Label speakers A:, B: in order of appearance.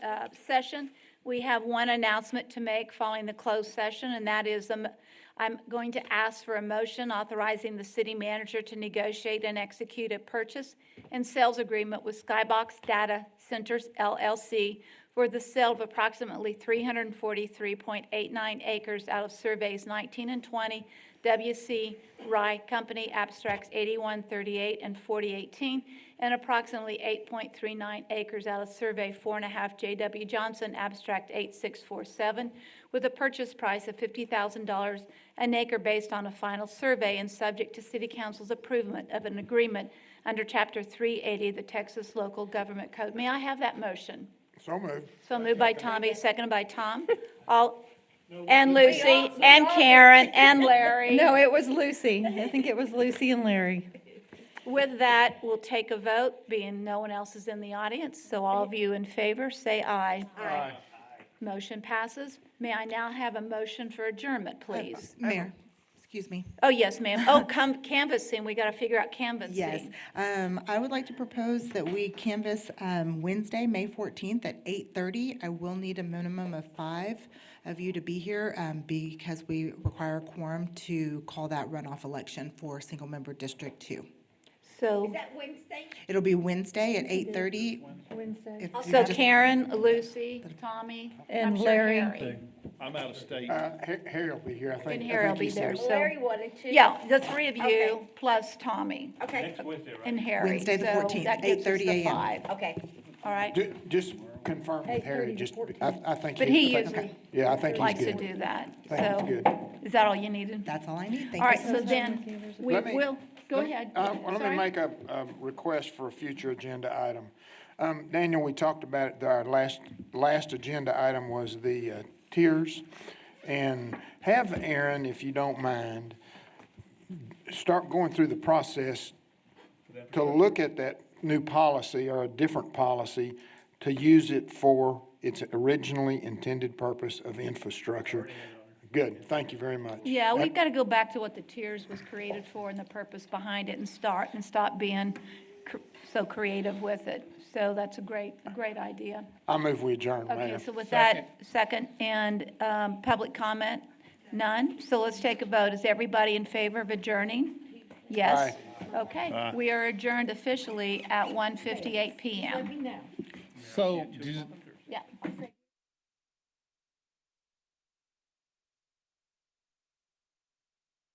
A: uh, session. We have one announcement to make following the closed session, and that is, um, I'm going to ask for a motion authorizing the city manager to negotiate and execute a purchase and sales agreement with Skybox Data Centers LLC for the sale of approximately 343.89 acres out of surveys 19 and 20, WC Rye Company Abstracts 8138 and 4018, and approximately 8.39 acres out of survey 4.5 J.W. Johnson Abstract 8647, with a purchase price of $50,000 an acre based on a final survey and subject to city council's approval of an agreement under Chapter 380 of the Texas Local Government Code. May I have that motion?
B: So moved.
A: So moved by Tommy, seconded by Tom. All, and Lucy, and Karen, and Larry.
C: No, it was Lucy. I think it was Lucy and Larry.
A: With that, we'll take a vote, being no one else is in the audience, so all of you in favor, say aye. Aye. Motion passes. May I now have a motion for adjournment, please?
D: Mayor, excuse me.
A: Oh, yes, ma'am. Oh, come canvassing, we got to figure out canvassing.
D: Yes, um, I would like to propose that we canvass, um, Wednesday, May fourteenth at eight thirty. I will need a minimum of five of you to be here, um, because we require a quorum to call that runoff election for single-member District Two.
A: So,
E: that Wednesday?
D: It'll be Wednesday at eight thirty.
C: Wednesday.
A: so Karen, Lucy, Tommy.
C: And
A: I'm sure
C: Larry.
F: I'm out of state.
B: Uh, Ha- Harry will be here, I think.
A: And
B: I
A: Harry
B: think
A: will be
B: he said.
A: there, so.
E: Larry wanted to.
A: Yeah, the three of you,
E: Okay.
A: plus Tommy
E: Okay,
A: and Harry.
D: Wednesday, the
A: So
D: 14th,
A: that gives us the
D: 8:30 a.m..
A: five.
E: okay.
A: All right,
B: Ju- Just confirm with Harry, just, I, I think.
A: But he
B: I think-
A: usually
B: Yeah, I think
A: likes
B: he's
A: to
B: good.
A: do that, so.
B: Thank you, good.
A: Is that all you needed?
D: That's all I need. Thank you
A: All right,
D: so
A: so
D: much.
A: then, we
B: Let me-
A: will, go ahead.
B: Uh, well, Let
A: Sorry.
B: me make a, a request for a future agenda item. Um, Daniel, we talked about it, our last, last agenda item was the uh, tiers. And have Aaron, if you don't mind, start going through the process to look at that new policy or a different policy, to use it for its originally intended purpose of infrastructure. Good, thank you very much.
A: Yeah, we've got to go back to what the tiers was created for and the purpose behind it and start, and stop being cr- so creative with it. So that's a great, a great idea.
B: I move we adjourn, Mayor.
A: Okay, so with that, second, and um, public comment, none. So let's take a vote. Is everybody in favor of adjourning? Yes? Okay, we are adjourned officially at 1:58 PM.
F: So, do you-
A: Yeah.